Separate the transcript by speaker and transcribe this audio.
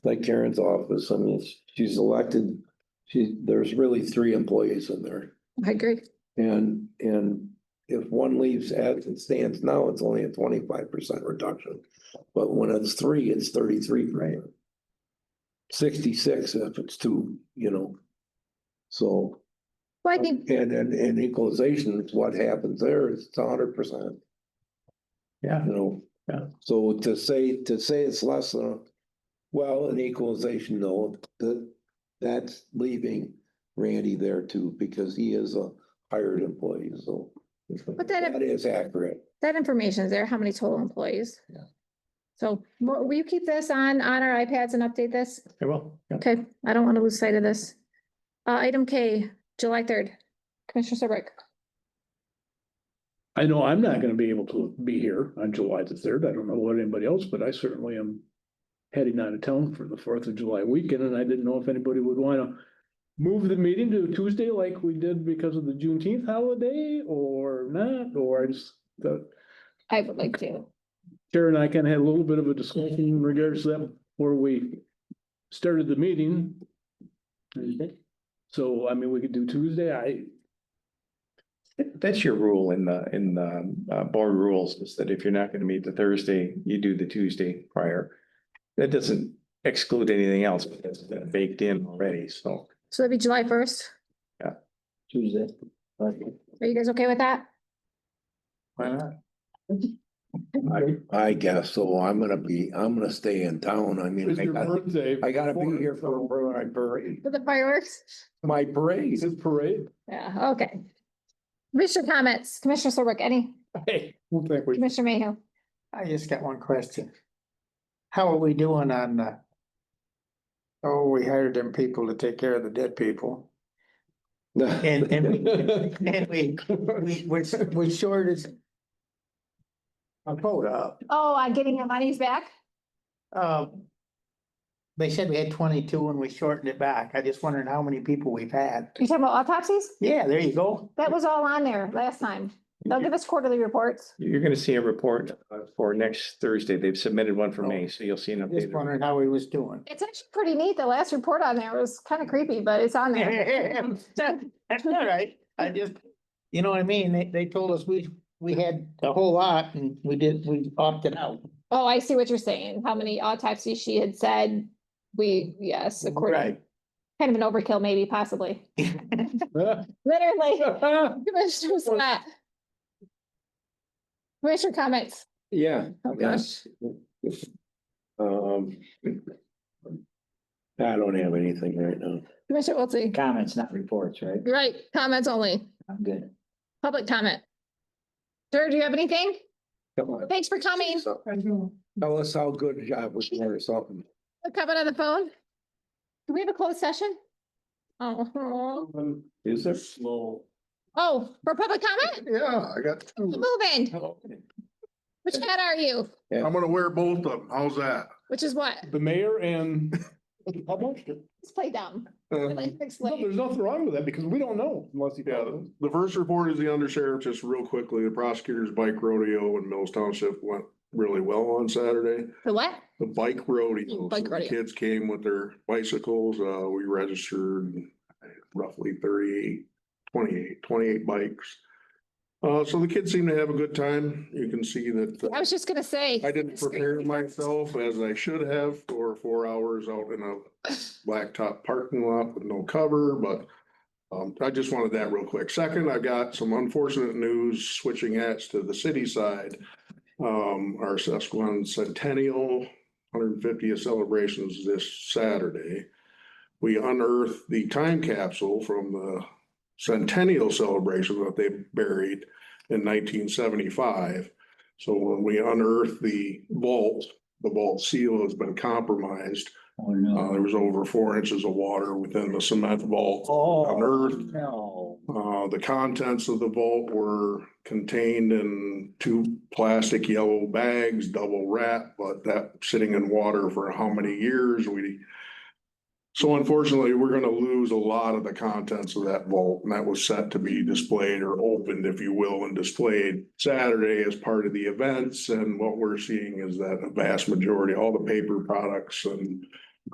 Speaker 1: like Karen's office, I mean, it's- she's elected, she, there's really three employees in there.
Speaker 2: I agree.
Speaker 1: And, and if one leaves as it stands now, it's only a twenty-five percent reduction. But when it's three, it's thirty-three. Right. Sixty-six if it's two, you know. So,
Speaker 2: Well, I
Speaker 1: and,
Speaker 2: think,
Speaker 1: and, and equalization, what happens there is it's hundred percent,
Speaker 3: Yeah,
Speaker 1: you know.
Speaker 3: Yeah.
Speaker 1: So to say, to say it's less than, a- well, an equalization, no, that, that's leaving Randy there too, because he is a hired employee, so.
Speaker 2: But that-
Speaker 1: That is accurate.
Speaker 2: that information is there, how many total employees?
Speaker 3: Yeah.
Speaker 2: So Mo- will you keep this on, on our iPads and update this?
Speaker 3: I will. Yeah.
Speaker 2: Okay, I don't want to lose sight of this. Uh, item K, July third, Commissioner Serbrook.
Speaker 3: I know I'm not gonna be able to be here on July the third. I don't know what anybody else, but I certainly am heading out of town for the Fourth of July weekend, and I didn't know if anybody would wanna move the meeting to Tuesday like we did because of the Juneteenth holiday or not, or I just, the,
Speaker 2: I would like to.
Speaker 3: Karen and I kind of had a little bit of a discussion in regards to that before we started the meeting. So, I mean, we could do Tuesday. I,
Speaker 4: That's your rule in the, in the uh, board rules is that if you're not gonna meet the Thursday, you do the Tuesday prior. That doesn't exclude anything else, but that's been baked in already, so.
Speaker 2: So that'd be July first.
Speaker 5: Tuesday.
Speaker 2: Are you guys okay with that?
Speaker 4: Why not?
Speaker 1: I guess so. I'm gonna be, I'm gonna stay in town. I mean, I gotta,
Speaker 3: birthday.
Speaker 1: I gotta be here for my parade,
Speaker 2: For the fireworks?
Speaker 1: my parade.
Speaker 3: His parade.
Speaker 2: Yeah, okay. Commissioner comments, Commissioner Serbrook, any,
Speaker 5: Hey,
Speaker 3: Well, thank you.
Speaker 2: Commissioner Mayhew?
Speaker 5: I just got one question. How are we doing on uh, the? Oh, we hired them people to take care of the dead people. And, and we, and we, we, we're, we're shorted. A quota,
Speaker 2: Oh, I'm getting your monies back?
Speaker 5: um. They said we had twenty-two and we shortened it back. I just wondered how many people we've had.
Speaker 2: You're talking about autopsies?
Speaker 5: Yeah, there you go.
Speaker 2: That was all on there last time. They'll give us quarterly reports.
Speaker 4: You're gonna see a report uh, for next Thursday. They've submitted one for me, so you'll see an
Speaker 5: Just
Speaker 4: update.
Speaker 5: wondering how he was doing.
Speaker 2: It's actually pretty neat. The last report on there was kind of creepy, but it's on there.
Speaker 5: That's all right. I just, you know what I mean? They, they told us we, we had a whole lot and we did, we opted out.
Speaker 2: Oh, I see what you're saying. How many autopsies she had said? We, yes, according, kind of an overkill maybe possibly. Literally, Commissioner Scott. Commissioner comments.
Speaker 1: Yeah,
Speaker 2: Oh,
Speaker 1: yes. Um. I don't have anything right now.
Speaker 2: Commissioner Wiltie.
Speaker 5: Comments, not reports, right?
Speaker 2: Right, comments only,
Speaker 5: I'm good.
Speaker 2: public comment. Sir, do you have anything?
Speaker 1: Come on.
Speaker 2: Thanks for coming.
Speaker 1: So, Tell us how good a job was there or something.
Speaker 2: Comment on the phone? Do we have a closed session? Oh,
Speaker 1: Is there?
Speaker 2: oh, for public comment?
Speaker 6: Yeah, I got
Speaker 2: Keep
Speaker 6: two.
Speaker 2: Moving. Which hat are you?
Speaker 6: I'm gonna wear both of them. How's that?
Speaker 2: Which is what?
Speaker 3: The mayor and.
Speaker 2: Let's play dumb.
Speaker 6: Uh,
Speaker 2: Like,
Speaker 3: No,
Speaker 2: explain.
Speaker 3: there's nothing wrong with that because we don't know unless he
Speaker 6: Yeah,
Speaker 3: tells us.
Speaker 6: the first report is the undersheriff, just real quickly, the prosecutor's bike rodeo in Mills Township went really well on Saturday.
Speaker 2: For what?
Speaker 6: The bike rodeo, so
Speaker 2: Bike
Speaker 6: the
Speaker 2: rodeo.
Speaker 6: kids came with their bicycles, uh, we registered roughly 38, 28 28 bikes. Uh, so the kids seem to have a good time. You can see that. uh,
Speaker 2: I was just gonna say.
Speaker 6: I didn't prepare myself as I should have for four hours out in a blacktop parking lot with no cover, but um, I just wanted that real quick. Second, I got some unfortunate news switching hats to the city side. Um, our sesquicentennial hundred fiftieth celebrations this Saturday. We unearthed the time capsule from the centennial celebration that they buried in nineteen seventy-five. So when we unearthed the vault, the vault seal has been compromised.
Speaker 5: Oh,
Speaker 6: Uh, there was over four inches of water within the cement vault.
Speaker 5: Oh,
Speaker 6: Unearthed.
Speaker 5: no.
Speaker 6: Uh, the contents of the vault were contained in two plastic yellow bags, double wrapped, but that sitting in water for how many years we. So unfortunately, we're gonna lose a lot of the contents of that vault and that was set to be displayed or opened, if you will, and displayed Saturday as part of the events. And what we're seeing is that a vast majority, all the paper products and